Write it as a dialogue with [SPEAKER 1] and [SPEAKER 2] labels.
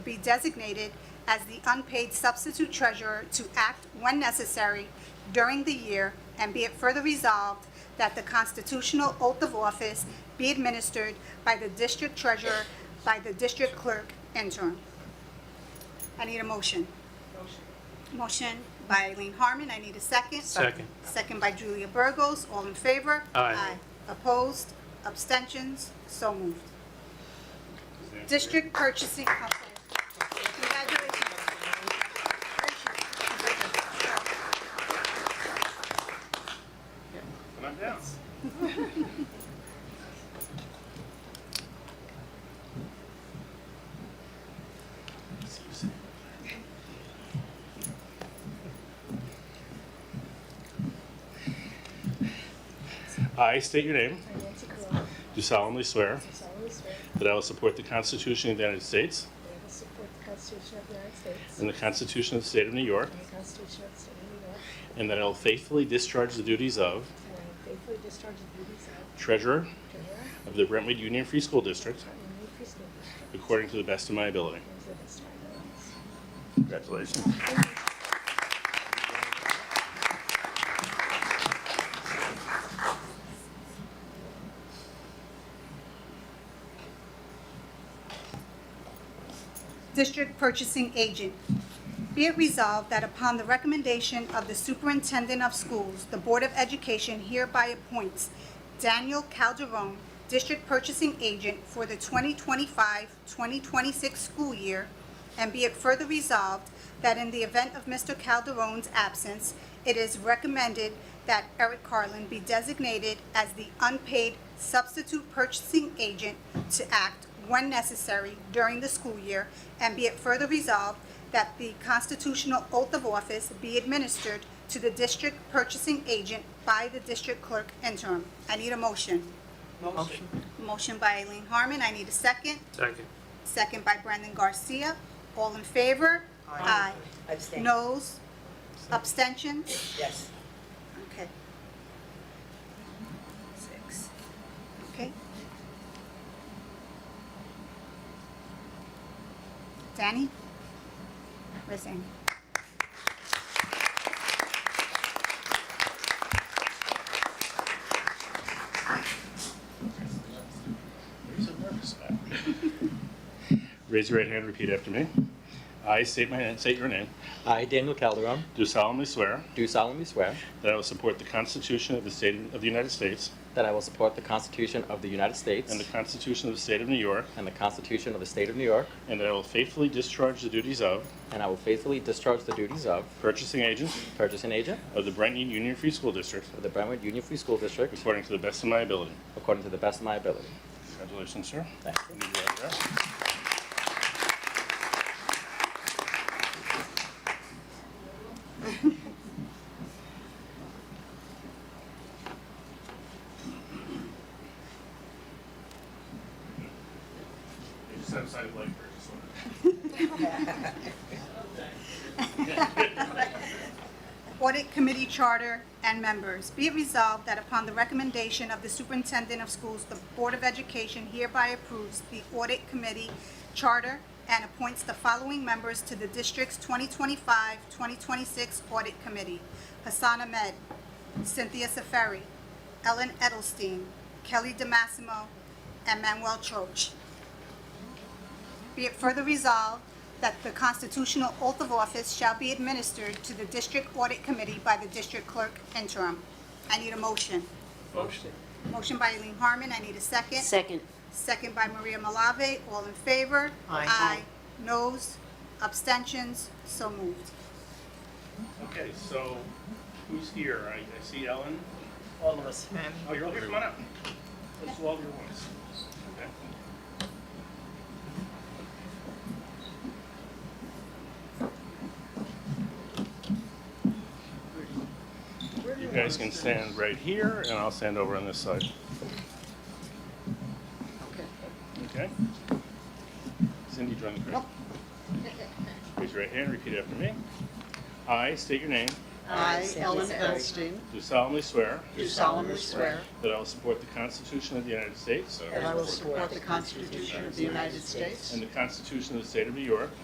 [SPEAKER 1] be designated as the unpaid substitute treasurer to act when necessary during the year, and be it further resolved that the constitutional oath of office be administered by the district treasurer by the district clerk interim. I need a motion. Motion by Eileen Harmon, I need a second.
[SPEAKER 2] Second.
[SPEAKER 1] Second by Julia Burgos, all in favor?
[SPEAKER 2] Aye.
[SPEAKER 1] Opposed, abstentions, so moved. District Purchasing Council. Congratulations.
[SPEAKER 3] Come on down. I state your name,
[SPEAKER 4] I, Nancy Corona,
[SPEAKER 3] do solemnly swear
[SPEAKER 4] do solemnly swear
[SPEAKER 3] that I will support the Constitution of the United States
[SPEAKER 4] that I will support the Constitution of the United States
[SPEAKER 3] and the Constitution of the State of New York,
[SPEAKER 4] and the Constitution of the State of New York,
[SPEAKER 3] and that I will faithfully discharge the duties of
[SPEAKER 4] and I will faithfully discharge the duties of
[SPEAKER 3] Treasurer
[SPEAKER 4] Treasurer
[SPEAKER 3] of the Brentwood Union Free School District
[SPEAKER 4] of the New Free School District
[SPEAKER 3] according to the best of my ability.
[SPEAKER 4] to the best of my abilities.
[SPEAKER 3] Congratulations.
[SPEAKER 1] District Purchasing Agent. Be it resolved that upon the recommendation of the Superintendent of Schools, the Board of Education hereby appoints Daniel Calderon, District Purchasing Agent for the 2025-2026 school year, and be it further resolved that in the event of Mr. Calderon's absence, it is recommended that Eric Carlin be designated as the unpaid substitute purchasing agent to act when necessary during the school year, and be it further resolved that the constitutional oath of office be administered to the district purchasing agent by the district clerk interim. I need a motion.
[SPEAKER 2] Motion.
[SPEAKER 1] Motion by Eileen Harmon, I need a second.
[SPEAKER 2] Second.
[SPEAKER 1] Second by Brendan Garcia. All in favor? Aye.
[SPEAKER 5] Abstain.
[SPEAKER 1] Noes? Abstentions?
[SPEAKER 5] Yes.
[SPEAKER 1] Okay. Six. Okay. Danny? Where's Danny?
[SPEAKER 3] You're so nervous about it. Raise your right hand and repeat after me. I state my, state your name,
[SPEAKER 6] I, Daniel Calderon,
[SPEAKER 3] do solemnly swear
[SPEAKER 6] do solemnly swear
[SPEAKER 3] that I will support the Constitution of the State of the United States
[SPEAKER 6] that I will support the Constitution of the United States
[SPEAKER 3] and the Constitution of the State of New York,
[SPEAKER 6] and the Constitution of the State of New York,
[SPEAKER 3] and that I will faithfully discharge the duties of
[SPEAKER 6] and I will faithfully discharge the duties of
[SPEAKER 3] purchasing agent
[SPEAKER 6] purchasing agent
[SPEAKER 3] of the Brentwood Union Free School District
[SPEAKER 6] of the Brentwood Union Free School District
[SPEAKER 3] according to the best of my ability.
[SPEAKER 6] according to the best of my ability.
[SPEAKER 3] Congratulations, sir.
[SPEAKER 6] Thank you.
[SPEAKER 3] Need you right there. They just have side light purchase
[SPEAKER 1] Audit Committee Charter and Members. Be it resolved that upon the recommendation of the Superintendent of Schools, the Board of Education hereby approves the Audit Committee Charter and appoints the following members to the district's 2025-2026 Audit Committee. Hassan Ahmed, Cynthia Seferi, Ellen Edelstein, Kelly DeMassimo, and Manuel Choach. Be it further resolved that the constitutional oath of office shall be administered to the District Audit Committee by the District Clerk interim. I need a motion.
[SPEAKER 2] Motion.
[SPEAKER 1] Motion by Eileen Harmon, I need a second.
[SPEAKER 5] Second.
[SPEAKER 1] Second by Maria Malave, all in favor?
[SPEAKER 5] Aye.
[SPEAKER 1] Aye. Noes, abstentions, so moved.
[SPEAKER 3] Okay, so who's here? I, I see Ellen.
[SPEAKER 7] all of us.
[SPEAKER 3] Oh, you're all here. Come on up. Let's do all of your ones. Okay. You guys can stand right here, and I'll stand over on this side. Okay. Cindy, join the group. Raise your right hand, repeat after me. I state your name,
[SPEAKER 2] I,
[SPEAKER 5] Sally
[SPEAKER 2] Ellen
[SPEAKER 5] Sarah,
[SPEAKER 2] Epstein,
[SPEAKER 3] do solemnly swear
[SPEAKER 2] do solemnly swear
[SPEAKER 3] that I will support the Constitution of the United States
[SPEAKER 2] that I will support the Constitution of the United States
[SPEAKER 3] and the Constitution of the State of New York